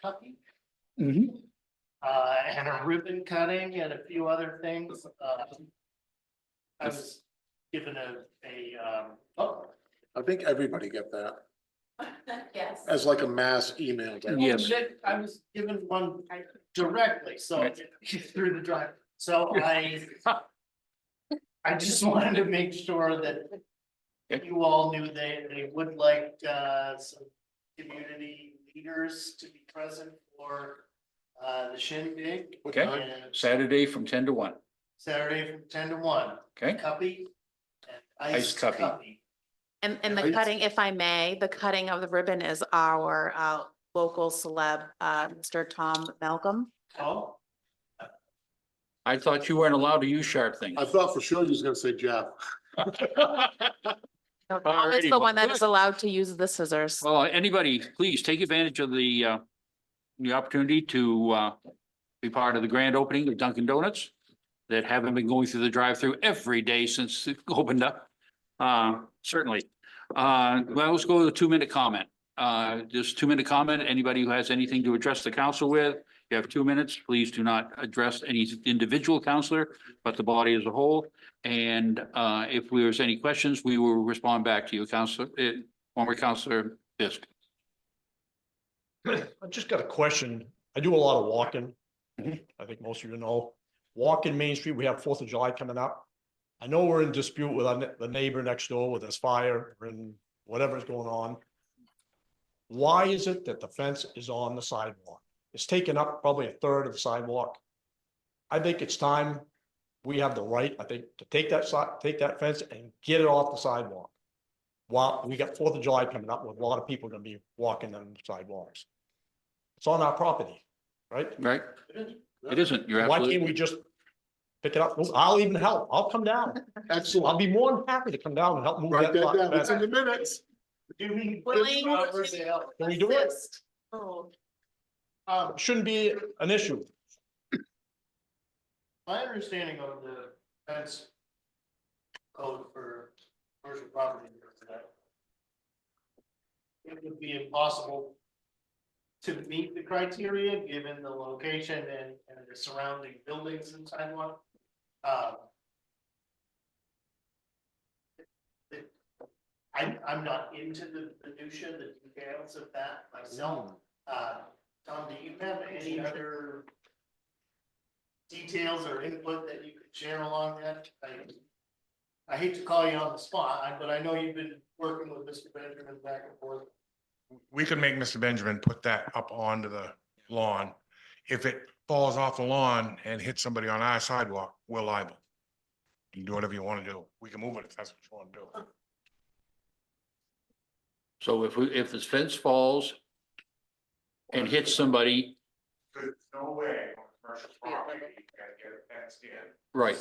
Kentucky. Mhm. Uh, and a ribbon cutting and a few other things, uh. I was given a, a, um, oh, I think everybody get that Yes. as like a mass email. to everyone. Yes. Nick, I was given one directly, so through the drive, so I. I just wanted to make sure that Okay. you all knew they, they would like, uh, some community leaders to be present for, uh, the shindig. What Okay. time? and Saturday from ten to one, Saturday from ten to one, okay? cuppy and Iced iced cuppy. cuppy. And, and Yeah. the cutting, if I may, the cutting of the ribbon is our, uh, local celeb, uh, Mr. Tom Malcolm. Oh, I thought you weren't allowed to use sharp things. I thought for sure you was gonna say Jeff. No, Tom is Alrighty, the well, one that is good. allowed to use the scissors. Well, uh, anybody, please take advantage of the, uh, the opportunity to, uh, be part of the grand opening of Dunkin' Donuts that haven't been going through the drive-through every day since it opened up. Uh, certainly. Uh, well, let's go to the two-minute comment. Uh, just two-minute comment. Anybody who has anything to address the council with, you have two minutes. Please do not address any individual counselor, but the body as a whole. And, uh, if there's any questions, we will respond back to you, Counselor, eh, former Counselor Fisk. I just got a question. I do a lot of walking. Mhm. I think most of you know. Walking Main Street, we have Fourth of July coming up. I know we're in dispute with our, ne- the neighbor next door with this fire and whatever's going on. Why is it that the fence is on the sidewalk? It's taken up probably a third of the sidewalk. I think it's time we have the right, I think, to take that side, take that fence and get it off the sidewalk. While we got Fourth of July coming up with a lot of people gonna be walking on the sidewalks. It's on our property, right? Right? It isn't. You're Why can't absolutely, we just pick it up? I'll even help. I'll come down. I'll Excellent. be more than happy to come down and help move Write that. that lot down. It's in back. the minutes. do we? Willing Robert Dale. Can we do it? Oh, Um, Shouldn't be an issue. My understanding of the fence code for commercial property is that it would be impossible to meet the criteria, given the location and, and the surrounding buildings and sidewalk. Um, it- I'm, I'm not into the minutia, the details of that myself. Uh, Tom, do you have any other details or input that you could share along that? I, I hate to call you on the spot, I- but I know you've been working with Mr. Benjamin back and forth. we could make Mr. Benjamin put that up onto the lawn. If it falls off the lawn and hits somebody on our sidewalk, we're liable. You can do whatever you want to do. We can move it if that's what you want to do. so if we, if this fence falls and hits somebody, There's no way on commercial property, you gotta get it fenced in. right,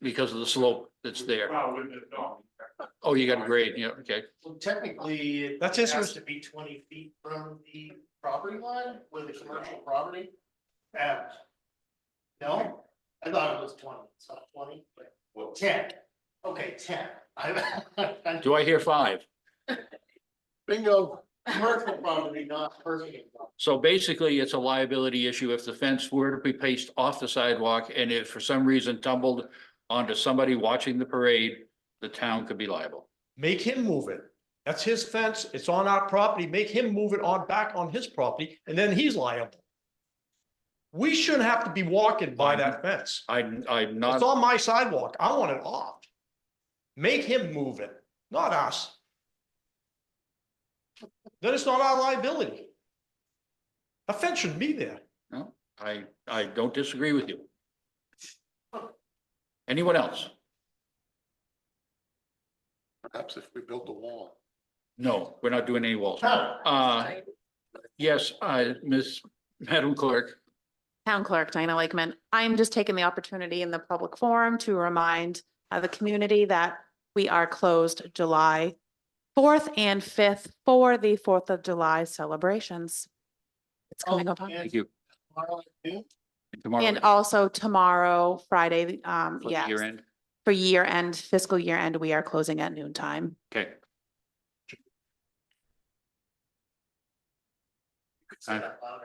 because of the slope that's there. Well, with the- no. Oh, you got a grade, yeah, okay. Well, technically, it That's his has to be twenty feet from the property line with the commercial property. And, no, I thought it was twenty, it's not twenty, but ten, okay, ten. I- I- Do I hear five? Bingo. Commercial property, not personal property. So basically, it's a liability issue if the fence were to be placed off the sidewalk and if for some reason tumbled onto somebody watching the parade, the town could be liable. Make him move it. That's his fence. It's on our property. Make him move it on back on his property and then he's liable. We shouldn't have to be walking by that fence. I, I'm not. It's on my sidewalk. I want it off. Make him move it, not us. Then it's not our liability. A fence shouldn't be there. I, I don't disagree with you. Anyone else? Perhaps if we built a wall. No, we're not doing any walls. Huh. Uh, yes, I, Miss, Madam Clerk, Town Clerk Diana Lakeman, I'm just taking the opportunity in the public forum to remind uh, the community that we are closed July fourth and fifth for the Fourth of July celebrations. It's coming Oh, up. on- and thank you. tomorrow at noon? Oh, Tomorrow. And also tomorrow, Friday, um, for the yes, Year end, for year end, fiscal year end, we are closing at noon time. okay. Say that loud.